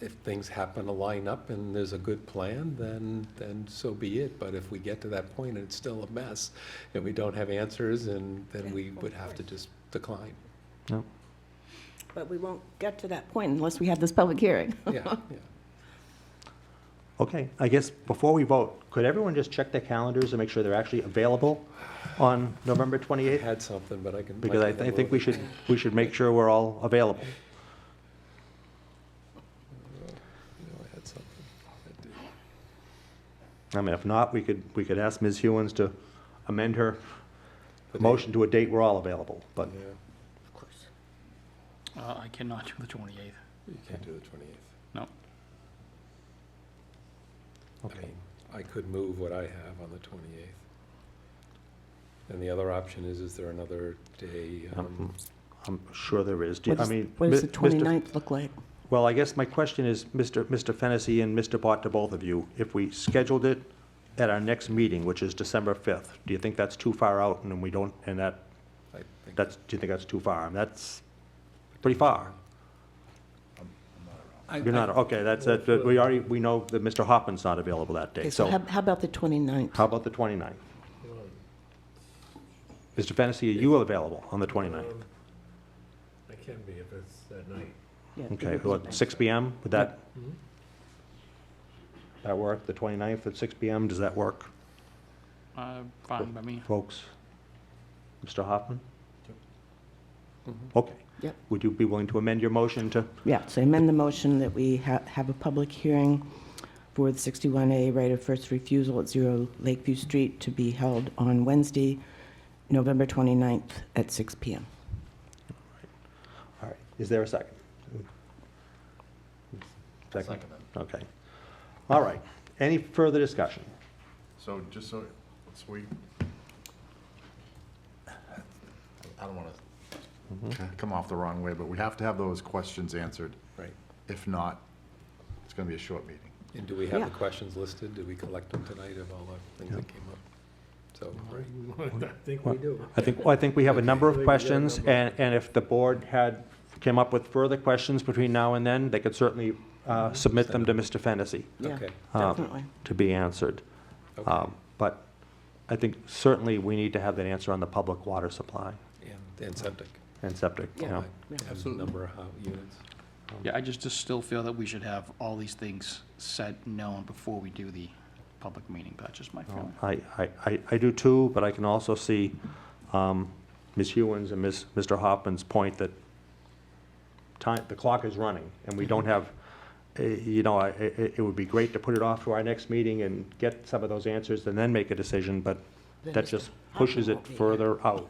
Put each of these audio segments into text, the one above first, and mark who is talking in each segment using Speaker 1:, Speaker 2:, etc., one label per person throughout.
Speaker 1: if things happen to line up and there's a good plan, then, then so be it. But if we get to that point and it's still a mess, and we don't have answers, and then we would have to just decline.
Speaker 2: But we won't get to that point unless we have this public hearing.
Speaker 1: Yeah, yeah.
Speaker 3: Okay, I guess before we vote, could everyone just check their calendars and make sure they're actually available on November
Speaker 1: I
Speaker 3: 28th?
Speaker 1: had something, but I can.
Speaker 3: Because I,
Speaker 1: can
Speaker 3: I think
Speaker 1: download
Speaker 3: we
Speaker 1: it.
Speaker 3: should, we should make sure we're all available.
Speaker 1: No, I had something. I did.
Speaker 3: I mean, if not, we could, we could ask Ms. Hewens to amend her
Speaker 1: The date.
Speaker 3: motion to a date we're all available, but
Speaker 1: Yeah,
Speaker 4: Uh, I cannot do the 28th.
Speaker 1: you can't do the twenty-eighth.
Speaker 4: No.
Speaker 1: I mean, I could move what I have on the twenty-eighth. And the other option is, is there another day?
Speaker 3: Mm-hmm.
Speaker 1: um,
Speaker 3: I'm sure there is. Do you-
Speaker 2: What
Speaker 3: I
Speaker 2: does-
Speaker 3: mean.
Speaker 2: What does
Speaker 3: Mi-
Speaker 2: the
Speaker 3: Mr.
Speaker 2: 29th look like?
Speaker 3: Well, I guess my question is, Mr. Mr. Fennessy and Mr. Bott, to both of you, if we scheduled it at our next meeting, which is December 5th, do you think that's too far out and then we don't, and that,
Speaker 1: I think-
Speaker 3: that's, do you think that's too far? And that's pretty far.
Speaker 1: I-
Speaker 3: You're not, okay, that's, that- that- we already, we know that Mr. Hoffman's not available that day,
Speaker 2: Okay, so how
Speaker 3: so
Speaker 2: how about the 29th?
Speaker 3: how about the 29th? Mr. Fennessy, are you available on the 29th?
Speaker 5: I can be if it's at night.
Speaker 2: Yeah,
Speaker 3: Okay,
Speaker 2: because-
Speaker 3: what, 6 PM, would that? That work, the 29th at 6 PM, does that work?
Speaker 4: Uh, Fine by me.
Speaker 3: folks? Mr. Hoffman? Okay.
Speaker 2: Yep.
Speaker 3: Would you be willing to amend your motion to,
Speaker 2: Yeah, so amend the motion that we ha- have a public hearing for the 61A right of first refusal at Zero Lakeview Street to be held on Wednesday, November 29th at 6 PM.
Speaker 3: all right, is there a second? Second, okay. All right, any further discussion?
Speaker 5: So just so, so we, I don't want to come off the wrong way, but we have to have those questions answered.
Speaker 1: Right.
Speaker 5: If not, it's going to be a short meeting.
Speaker 1: And do we have
Speaker 2: Yeah.
Speaker 1: the questions listed? Did we collect them tonight of all the things that came up? So,
Speaker 3: I think, well, I think we have a number of questions, and, and if the board had, came up with further questions between now and then, they could certainly uh, submit them to Mr. Fennessy
Speaker 2: Yeah,
Speaker 1: okay.
Speaker 3: Uh,
Speaker 2: Definitely.
Speaker 3: to be answered.
Speaker 1: okay.
Speaker 3: Um, But I think certainly we need to have that answer on the public water supply
Speaker 1: And- And septic.
Speaker 3: and septic, you
Speaker 2: Yeah.
Speaker 3: know?
Speaker 1: Right.
Speaker 2: Yeah.
Speaker 1: And
Speaker 4: Absolutely.
Speaker 1: Number of hou- units.
Speaker 3: Um,
Speaker 4: Yeah, I just, just still feel that we should have all these things said, known before we do the public meeting. That's just my
Speaker 3: Oh,
Speaker 4: feeling.
Speaker 3: Um, I, I- I, I do too, but I can also see um, Ms. Hewens and Ms., Mr. Hoffman's point that time, the clock is running, and we
Speaker 2: Mm-hmm.
Speaker 3: don't have, eh, you know, I- i- i- it would be great to put it off to our next meeting and get some of those answers and then make a decision, but
Speaker 2: Then
Speaker 3: Um, that
Speaker 2: Mr.
Speaker 3: just
Speaker 2: Hoffman
Speaker 3: pushes it
Speaker 2: won't be here.
Speaker 3: further out,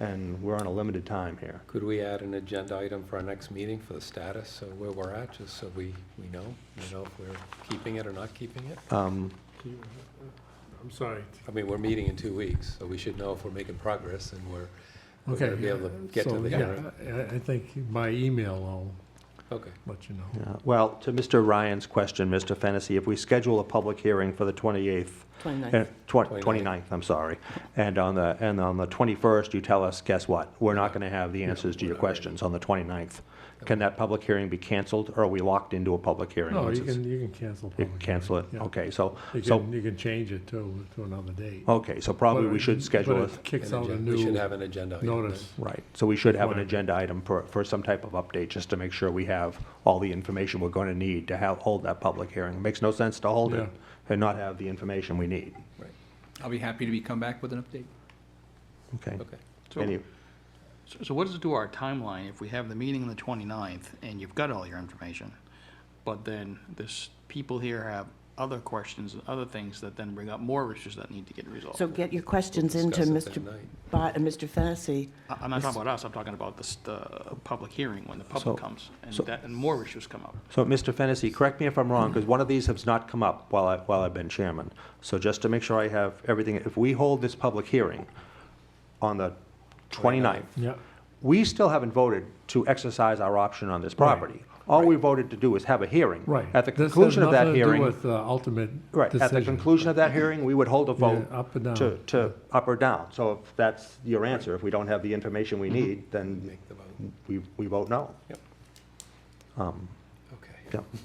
Speaker 3: and we're on a limited time here.
Speaker 1: Could we add an agenda item for our next meeting for the status, so where we're at, just so we, we know, you know, if we're keeping it or not keeping it?
Speaker 3: Um,
Speaker 6: I'm sorry.
Speaker 1: I mean, we're meeting in two weeks, so we should know if we're making progress and we're, we're
Speaker 6: Okay.
Speaker 1: gonna be able to get to
Speaker 6: so,
Speaker 1: the.
Speaker 6: yeah, I, I think by email I'll
Speaker 1: Okay,
Speaker 6: let you know.
Speaker 3: yeah. Well, to Mr. Ryan's question, Mr. Fennessy, if we schedule a public hearing for the 28th,
Speaker 2: 29th.
Speaker 3: Uh, twen-
Speaker 1: 29th.
Speaker 3: 29th, I'm sorry. And on the, and on the 21st, you tell us, guess what? We're not going to have the answers to
Speaker 1: we're
Speaker 3: your
Speaker 1: not ready.
Speaker 3: questions on the 29th. Can that public hearing be canceled, or are we locked into a public hearing?
Speaker 6: No,
Speaker 3: once
Speaker 6: you
Speaker 3: it's-
Speaker 6: can, you can cancel.
Speaker 3: you
Speaker 6: public
Speaker 3: Cancel it?
Speaker 6: hearing, yeah.
Speaker 3: Okay, so,
Speaker 6: You
Speaker 3: so,
Speaker 6: can, you can change it to, to another date.
Speaker 3: okay, so probably
Speaker 6: But
Speaker 3: we
Speaker 6: it-
Speaker 3: should schedule
Speaker 6: But
Speaker 3: it.
Speaker 6: it kicks
Speaker 1: An
Speaker 6: out a
Speaker 1: agen- we should
Speaker 6: new
Speaker 1: have an agenda item. then.
Speaker 6: notice.
Speaker 3: Right, so we should have an
Speaker 6: Right.
Speaker 3: agenda item for, for some type of update, just to make sure we have all the information we're going to need to have, hold that public hearing. It Makes no sense to hold
Speaker 6: Yeah.
Speaker 3: it and not have the information we need.
Speaker 1: Right,
Speaker 7: I'll be happy to be, come back with an update.
Speaker 3: Okay?
Speaker 1: okay.
Speaker 4: So-
Speaker 3: Any-
Speaker 4: So so what does it do our timeline if we have the meeting on the 29th and you've got all your information? But then this, people here have other questions and other things that then bring up more issues that need to get resolved.
Speaker 2: So get your questions
Speaker 1: We'll
Speaker 2: into
Speaker 1: discuss it
Speaker 2: Mr.
Speaker 1: that night.
Speaker 2: Bott and Mr. Fennessy.
Speaker 4: I- I'm not talking about us, I'm talking about this, the public hearing when the
Speaker 3: So-
Speaker 4: public comes and
Speaker 3: so-
Speaker 4: that, and more issues come up.
Speaker 3: So, Mr. Fennessy, correct me if I'm wrong, because one of these has not come up while I, while I've been chairman. So just to make sure I have everything, if we hold this public hearing on the 29th,
Speaker 6: Yeah,
Speaker 3: we still haven't voted to exercise our option on this property. All we voted to do is have a hearing.
Speaker 6: right.
Speaker 3: At the
Speaker 6: This has
Speaker 3: conclusion of that
Speaker 6: nothing to do
Speaker 3: hearing.
Speaker 6: With, uh, ultimate
Speaker 3: Right, at the
Speaker 6: decision.
Speaker 3: conclusion of that hearing, we would hold a vote.
Speaker 6: Yeah, up or down.
Speaker 3: To, to, up or down. So if that's your answer, if we don't have the information
Speaker 6: Mm-hmm.
Speaker 3: we need, then
Speaker 1: Make the vote,
Speaker 3: we, we vote no.
Speaker 1: yep,
Speaker 3: Um,
Speaker 1: okay.
Speaker 3: yeah.